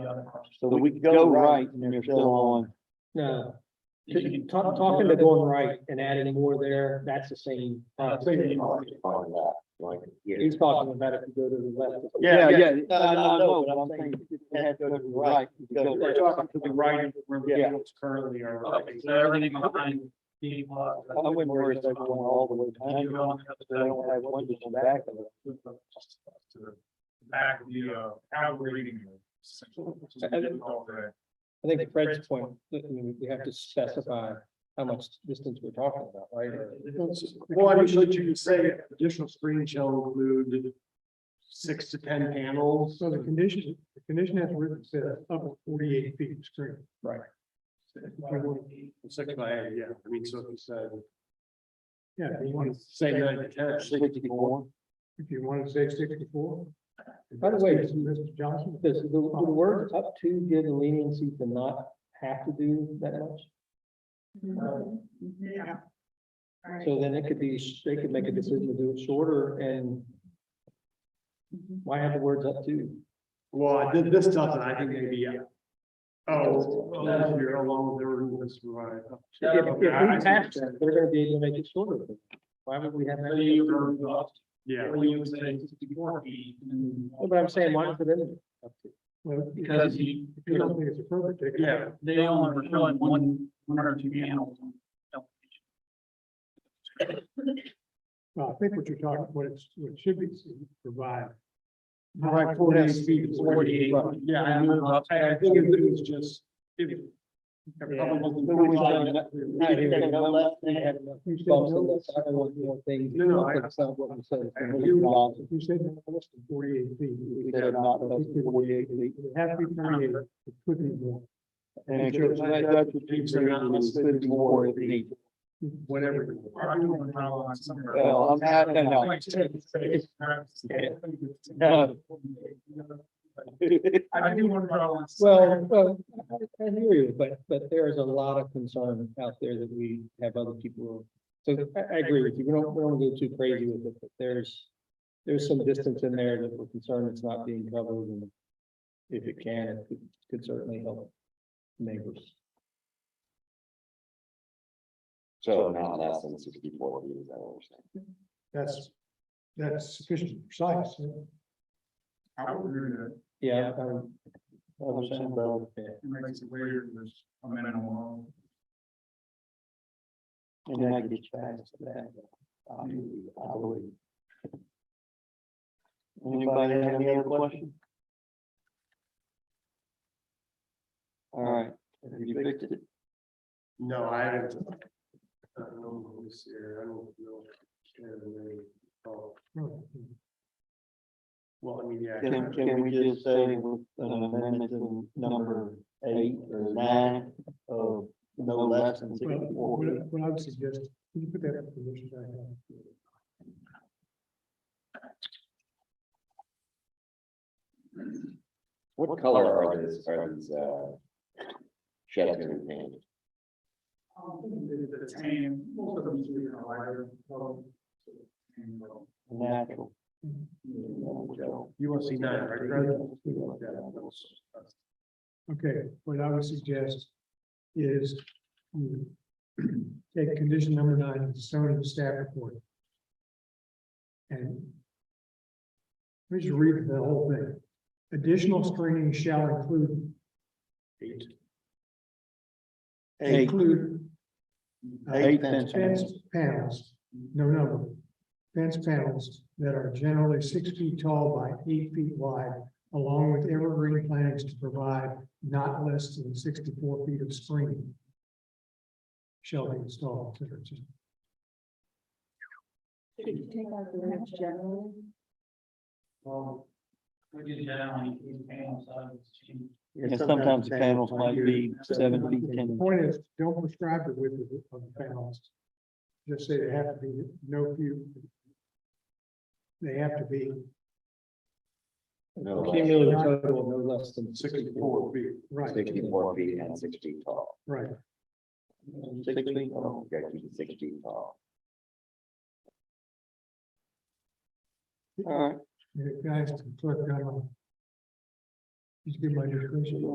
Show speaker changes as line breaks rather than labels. So
we
we
could
go right and you're still on.
No,
You can
talk, talking to going right and adding more there, that's the same. uh,
find that, like, yeah.
He's talking about if you go to the left.
Yeah, yeah.
No,
I- I
no, no,
know, but I'm saying if you had to go to the right. you could go
We're
right.
talking to the right, where the
Yeah.
fields currently are.
Okay, so everything behind the lot.
I wouldn't worry about going all the way behind.
You're
you.
going up to
They don't have windows in the back of it.
To the Back of the, uh, how we're reading.
I think Fred's point, I mean, we have to specify how much distance we're talking about, right?
Well, I mean, like you could say additional screen shall include six to ten panels.
So the condition, the condition has written says
uh,
up to forty-eight feet of screen.
Six by eight, yeah, I mean, so if you said,
Yeah, if you want to,
say nine to ten.
Sixty-four.
if you want to say sixty-four.
By the way,
Mr. Johnson.
Does the, do the word up to give the leniency to not have to do that much?
Yeah. All right.
So then it could be, sh- they could make a decision to do it shorter and why have the words up to?
Well, I did this doesn't, I think maybe, yeah. Oh, well, you're along with everyone that's right up to.
If, if we have to, they're gonna be able to make it shorter. Why would we have?
So you were, uh,
Yeah.
when you was at sixty-four feet. and then-
No, But I'm saying, why is it in?
Well,
Because you,
If you don't think it's appropriate, take it
Yeah.
out.
they only were showing one, one or two panels.
Well, I think what you're talking, what it's, what it should be provided.
Right, forty-eight feet. is what it is.
Forty-eight,
Yeah, I know, but I I think it was just. it- I probably wasn't
But we
qualified.
said
You said
Bumps
no,
and that's not one of the things.
No, no, I-
That's not what we said. It's a
you-
million dollars.
You said no less than forty-eight feet.
We said not less than 48 feet.
It has to be forty-eight, it could be more.
And it's just like that would be so now it's 54 if you need.
Whatever.
Arguing how long somewhere.
Well, I'm not, no, no.
Like, it's-
No.
I do want to. draw lines.
Well, well, I I hear you, but, but there is a lot of concern out there that we have other people. So I, I agree with you. We don't, we don't go too crazy with it, but there's, there's some distance in there that we're concerned it's not being covered and if it can, it could- could certainly help neighbors.
So not less than sixty-four feet, is that what we're saying?
That's, that's sufficient precise.
I would agree with it.
Yeah. um,
I was saying, but
yeah.
It makes it weird, if there's a minimum.
And then I get back to that. um, I would. Anybody have any other question? All right, have you fixed it?
No, I haven't. I don't know, let me see here, I don't know. Can they- oh, Well, I mean, yeah.
Hmm. Can, can we just say with an amendment to number eight or nine of no less than
Well,
sixty-four?
What I
feet?
what I would suggest, can you put that in the conditions I have?
What color are these, are these, uh, sheds gonna be painted?
Um, The tan, most of them are in a lighter color. And, uh,
Natural.
You want to see nine, right? Fred? Yeah, that's- that's-
Okay, what I would suggest is you take condition number nine, and show it in the staff report. And let me just read the whole thing. Additional screening shall include,
Eight.
include uh,
Eight fence
fence
panels.
panels, no number. Fence panels that are generally six feet tall by eight feet wide, along with evergreen plantings to provide not less than sixty-four feet of screening. Shall be installed. So it's just-
Should you take out the word generally?
Um,
Well, We did that on the panel side, it's changed.
And sometimes the panels might be seven feet,
The
ten.
Point is, don't prescribe the width of the- of the panels. Just say they have to be no few. They have to be
No less than
Cumulative total, no less than
sixty-four feet, right,
Sixty-four feet and six feet tall,
right.
Six feet. oh,
you gotta keep it six feet tall.
All right,
You guys, the clerk, I don't know. Did you get my description?